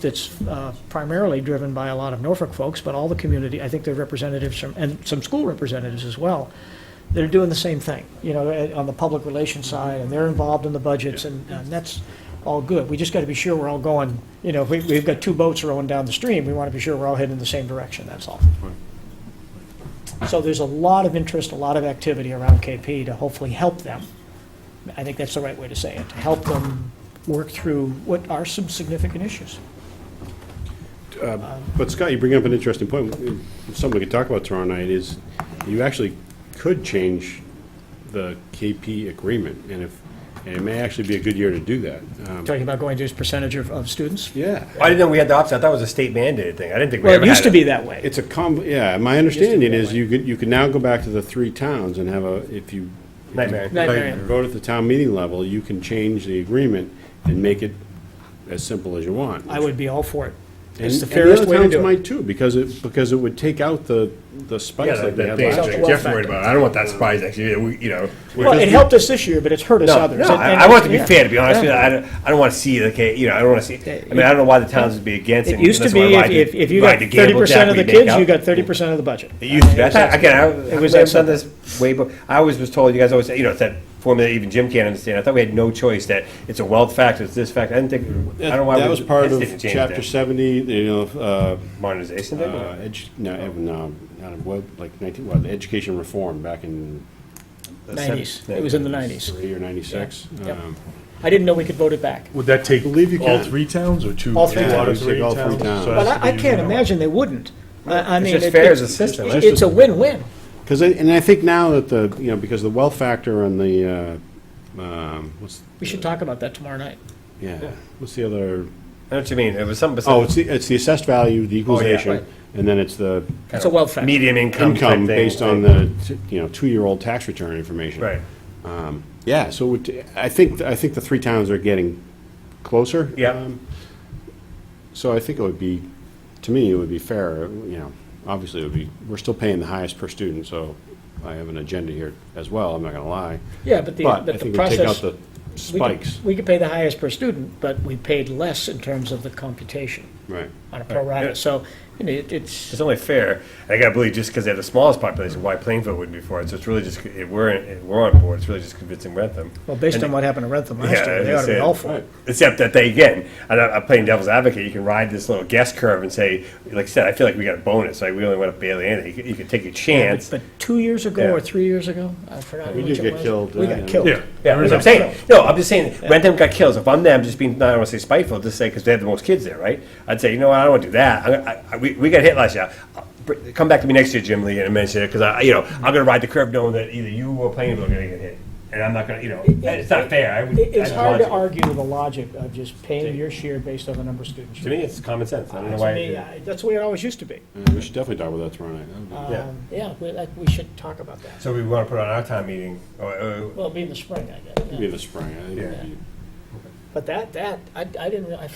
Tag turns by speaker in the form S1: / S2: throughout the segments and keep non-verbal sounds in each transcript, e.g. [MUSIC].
S1: that's uh, primarily driven by a lot of Norfolk folks, but all the community, I think they're representatives from, and some school representatives as well, that are doing the same thing, you know, eh, on the public relations side, and they're involved in the budgets, and and that's all good. We just got to be sure we're all going, you know, if we- we've got two boats rowing down the stream, we want to be sure we're all heading in the same direction, that's all. So there's a lot of interest, a lot of activity around KP to hopefully help them. I think that's the right way to say it, to help them work through what are some significant issues.
S2: But Scott, you bring up an interesting point, something we could talk about tomorrow night, is you actually could change the KP agreement, and if, and it may actually be a good year to do that. Um,
S1: Talking about going to his percentage of, of students?
S2: Yeah,
S3: I didn't know we had the option. I thought it was a state mandated thing. I didn't think we
S1: Well,
S3: ever
S1: it
S3: had
S1: used to be that way.
S2: it's a com, yeah, my understanding is you could, you could now go back to the three towns and have a, if you. if you
S3: Nightmare.
S1: Nightmare.
S2: Vote at the town meeting level, you can change the agreement and make it as simple as you want.
S1: I would be all for it.
S2: And
S1: It's the
S2: and other
S1: fairest way to
S2: towns
S1: do it.
S2: might too, because it, because it would take out the, the
S3: Yeah,
S2: spikes
S3: that,
S2: like we
S3: that
S2: had
S3: thing.
S2: last
S1: Well,
S2: year.
S3: Jeff
S1: well,
S3: worried about. it. I don't want that surprise next year. We, you know, we-
S1: Well, it helped us this year, but it's hurt us
S3: no,
S1: others.
S3: no.
S1: And-
S3: I,
S1: and-
S3: I want it to be
S1: yeah.
S3: fair. To be honest, with you,
S1: Yeah.
S3: I don't. I don't want to see the case. You know, I don't want to see. I mean, I don't know why the towns would be against
S1: It used to be, if, if- if you got thirty percent of the kids, you got thirty percent of the budget.
S3: It used to be. I thought, again, I,
S1: It
S3: it
S1: was
S3: was I've done this way, but I always was told, you guys always say, you know, it's that formula that even Jim can't understand. I thought we had no choice, that it's a wealth factor, it's this factor. I didn't think, I don't know why.
S2: That
S3: we-
S2: was part
S3: Hence
S2: of
S3: didn't change
S2: chapter
S3: that.
S2: seventy, you know, uh,
S3: Modernization
S2: uh,
S3: thing? or-
S2: edu, no, eh, no, not, in what, like nineteen, what, education reform back in
S1: Nineties. It was in the nineties.
S2: three or ninety-six. um,
S1: Yeah. Yep. I didn't know we could vote it back.
S4: Would that take
S2: Believe you
S4: all
S2: can.
S4: three towns or two?
S1: All three
S4: Two
S1: towns.
S4: out of
S2: Take all three towns.
S4: So it
S1: But
S4: has to
S1: I, I
S4: be
S1: can't
S4: uniform.
S1: imagine they wouldn't. I, I mean.
S3: just
S1: it-
S3: fair
S1: it-
S3: as a system.
S1: it- It's a win-win.
S2: Cause, I- and I think now that the, you know, because the wealth factor on the, uh, um, what's,
S1: We should talk about that tomorrow night.
S2: yeah, what's the other?
S3: I know what you mean, it was something
S2: Oh,
S3: besides
S2: it's the, it's the assessed value,
S1: Oh,
S2: the
S3: right.
S2: equalization, and then it's the
S1: It's a wealth factor.
S3: medium income type
S2: income
S3: thing.
S2: based on the, t- you know, two-year-old tax return information.
S3: Right,
S2: Yeah, so it- I think, I think the three towns are getting closer.
S3: yeah,
S2: Um, So I think it would be, to me, it would be fair, you know, obviously it would be, we're still paying the highest per student, so I have an agenda here as well, I'm not gonna lie.
S1: Yeah, but the,
S2: But I
S1: but the
S2: think we take out
S1: process.
S2: the
S1: we could-
S2: spikes.
S1: We could pay the highest per student, but we paid less in terms of the computation
S2: Right.
S1: on a pro rata.
S3: Yeah.
S1: So, you know, it- it's.
S3: it's only fair, I gotta believe just because they have the smallest population, why Plainfield wouldn't be for it, so it's really just, if we're, if we're on board, it's really just convincing Rentham.
S1: Well, based
S3: And-
S1: on what happened to Rentham
S3: Yeah,
S1: last year, they
S3: as I
S1: ought to be
S3: said,
S1: all for
S2: Right.
S1: it.
S3: Except that they, again, and I- I'm playing devil's advocate, you can ride this little guess curve and say, like I said, I feel like we got a bonus, like we only went up barely anything, you could, you could take a chance.
S1: But two years ago or
S3: Yeah.
S1: three years ago, I forgot
S2: We
S1: which
S2: did
S1: it
S2: get
S1: was.
S2: killed,
S1: We
S2: uh,
S1: got
S2: yeah.
S1: killed.
S4: Yeah.
S3: Yeah, that's what I'm saying. No, I'm just saying, Rentham got killed. So if I'm them, just being, I don't want to say spiteful, just say, because they have the most kids there, right? I'd say, you know what, I don't want to do that. I, I- I, we, we got hit last year. Uh, br- Come back to me next year, Jim Lee, and mention it, because I, you know, I'm going to ride the curve knowing that either you or Plainville are going to get hit. And I'm not going to, you know, it's not fair. I would-
S1: It-
S3: I
S1: It's
S3: just
S1: hard
S3: want
S1: to argue the logic of just paying your share based on the number of students.
S3: To
S1: you
S3: me, it's common sense. I don't know
S1: have.
S3: why.
S1: Uh, To
S3: I
S1: me,
S3: did Mm. it.
S1: I- That's the way it always used to be.
S2: Yeah, We should definitely talk about that tomorrow night. That would be-
S3: Yeah.
S1: Um, Yeah, we, like, we should talk about that.
S3: So we want to put on our time meeting, or, or,
S1: Well, it'll be in the spring, I guess. yeah.
S2: Be the spring, I think. it'd
S3: Yeah.
S2: be-
S1: But that, that, I, I didn't, rea- I,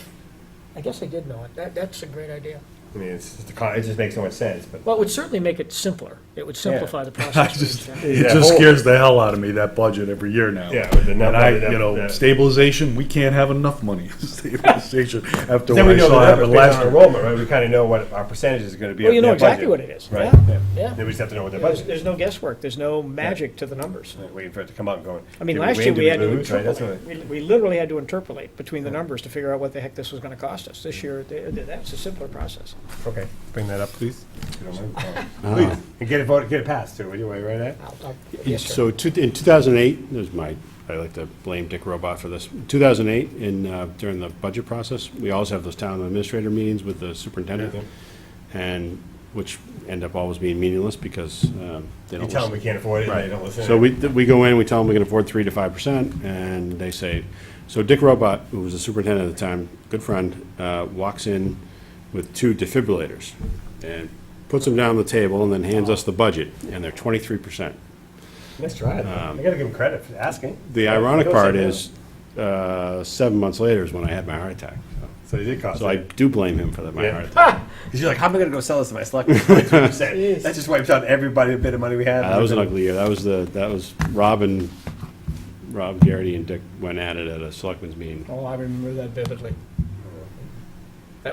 S1: I guess I did know it. That, that's a great idea.
S3: I mean, it's just, a con- it just makes so much sense, but.
S1: Well, it would certainly make it simpler. It would simplify
S3: [LAUGHS]
S1: the process. for
S4: Just-
S1: each town.
S4: It
S3: Yeah,
S4: just
S3: whole-
S4: scares the hell out of me, that budget every year now.
S3: Yeah, with the
S4: And
S3: number
S4: I,
S3: that-
S4: you know,
S3: that-
S4: stabilization, we can't have enough money [LAUGHS] in stabilization after
S3: Then we
S4: what I
S3: know
S4: saw
S3: the numbers
S4: happen
S3: based on
S4: last year.
S3: enrollment, right? We kind of know what our percentage is going to be.
S1: Well,
S3: of
S1: you know
S3: their
S1: exactly
S3: budget,
S1: what it is.
S3: Right?
S1: Yeah, yeah.
S3: Then we just have to know what their budget
S1: There's, there's
S3: is.
S1: no guesswork. There's no magic to the numbers.
S3: waiting for it to come out and going.
S1: I mean,
S3: did we
S1: last
S3: win?
S1: year
S3: Did
S1: we had to
S3: lose? Right, that's what
S1: interpolate. We we literally had to interpolate between the numbers to figure out what the heck this was going to cost us. This year, th- th- that's a simpler process.
S3: I- Okay, bring that up, please. if you don't
S1: [LAUGHS]
S3: mind. Please, and get it voted, get it passed too, would you wait right there?
S1: I'll- I'll- Yes, sir.
S2: So two- in 2008, there's my, I like to blame Dick Robot for this. 2008, in, uh, during the budget process, we always have those town administrator meetings with the superintendent, and, which end up always being meaningless because um, they
S3: You
S2: don't
S3: tell
S2: listen.
S3: them we can't afford it, and they don't listen.
S2: So we, th- we go in, we tell them we can afford 3 to 5%, and they say, so Dick Robot, who was the superintendent at the time, good friend, uh, walks in with two defibrillators and puts them down on the table and then hands us the budget, and they're 23%.
S3: Nice try, though. I gotta give them credit for asking.
S2: Um, The ironic
S3: Go
S2: part
S3: sit
S2: is, uh, seven months later is when I had my heart attack.
S3: down. So they did cost
S2: So I
S3: it.
S2: do blame him for that, my
S3: Yeah.
S2: heart attack.
S3: Because you're like, how am I gonna go sell this to my selectmen? 23%. That just wipes out everybody, a bit of money we had.
S2: Uh, That was an ugly year. That was the, that was Rob and, Rob Garrity and Dick went at it at a selectmen's meeting.
S1: Oh, I remember that vividly.